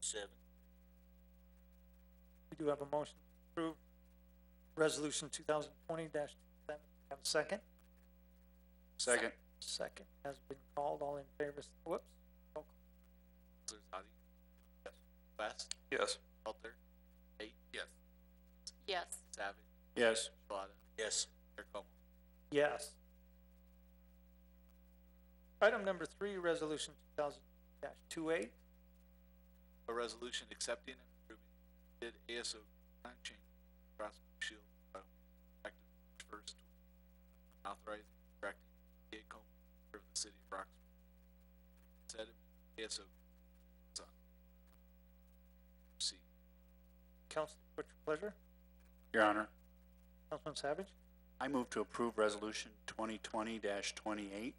seven. We do have a motion to approve Resolution two thousand twenty dash seven. Have a second? Second. Second has been called. All in favor, s- whoops. Counselor Zadi? Yes. West? Yes. Halter? Eight? Yes. Yes. Savage? Yes. Shalata? Yes. Mayor Como? Yes. Item number three, Resolution two thousand dash two eight. A resolution accepting and approving bid ASO nine change Cross Blue Shield uh, effective March first, authorizing and directing the Como of the city of Roxbury. Said ASO. Tucson. See, Council, what's your pleasure? Your Honor, Councilman Savage? I move to approve Resolution twenty twenty twenty-eight.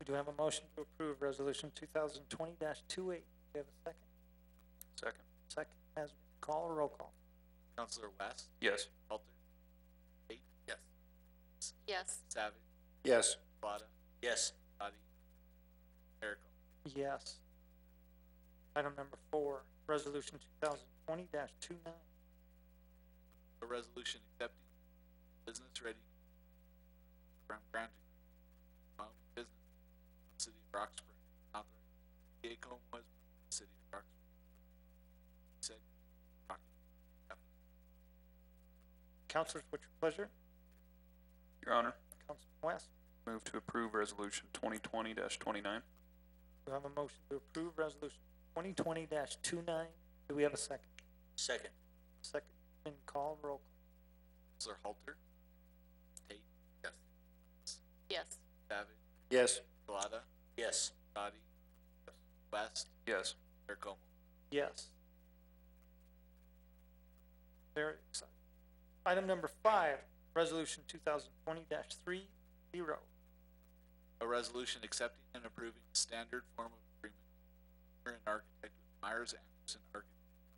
We do have a motion to approve Resolution two thousand twenty dash two eight. Do we have a second? Second. Second has been called. Roll call. Counselor West? Yes. Halter? Eight? Yes. Yes. Savage? Yes. Shalata? Yes. Zadi? Mayor Como? Yes. Item number four, resolution two thousand twenty dash two nine. a resolution accepting business ready from granting amount of business in the city of Roxbury, authorizing Gacom was the city of Roxbury. Said document. Counselors, what's your pleasure? Your Honor, Councilman West, move to approve resolution twenty twenty twenty-nine. do have a motion to approve resolution twenty twenty dash two nine? Do we have a second? Second. Second has been called, roll call. Counselor Halter? Tate? Yes. Yes. Savage? Yes. Shalata? Yes. Dottie? West? Yes. Mayor Como? Yes. Very exciting. Item number five, resolution two thousand twenty dash three zero. A resolution accepting and approving the standard form of agreement for an architect with Myers Anderson Architects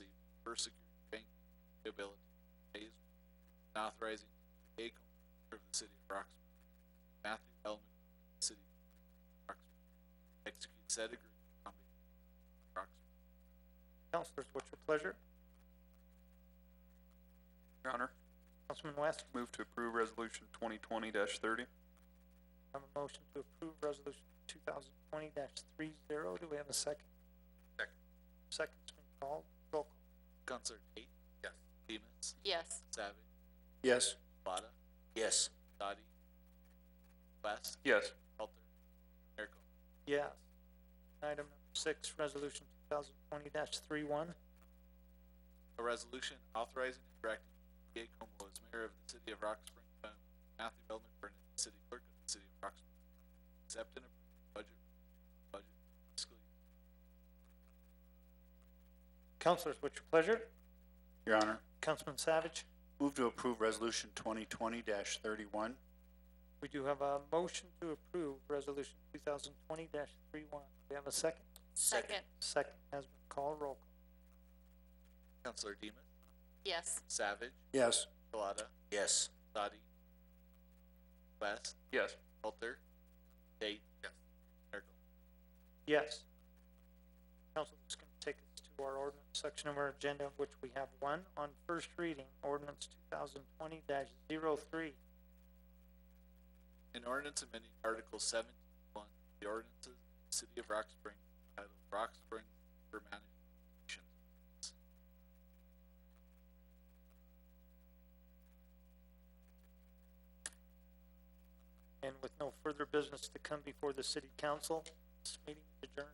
LLC for security bank liability phase one, and authorizing a commissioner of the city of Roxbury, Matthew Elman, city of Roxbury, to execute said agreement on behalf of Roxbury. Counselors, what's your pleasure? Your Honor, Councilman West, move to approve resolution twenty twenty thirty. I have a motion to approve resolution two thousand twenty three zero. Do we have a second? Second. Second's been called. Roll call. Counselor Tate? Yes. Demus? Yes. Savage? Yes. Shalata? Yes. Dottie? West? Yes. Halter? Mayor Como? Yes. Item number six, resolution two thousand twenty dash three one. A resolution authorizing and directing Gay Como as mayor of the city of Rock Springs, Wyoming, Matthew L. McBurnett, city clerk of the city of Rock Springs. Accept and approve budget, budget fiscal year. Councilors, what's your pleasure? Your Honor, Councilman Savage, move to approve Resolution twenty twenty thirty-one. we do have a motion to approve resolution two thousand twenty dash three one. Do we have a second? Second. Second has been called. Roll call. Counselor Demus, Yes. Savage, Yes. Shalata. Yes. Dottie. West, Yes. Halter. Tate. Yes. Mayor Gil- Yes. Council, this is gonna take us to our ordinance section of our agenda, of which we have one on first reading, ordinance two thousand twenty 3 An ordinance amending Article seventy-one, the ordinances of the city of Rock Springs, titled Rock Springs for Management. And with no further business to come before the city council, this meeting is adjourned.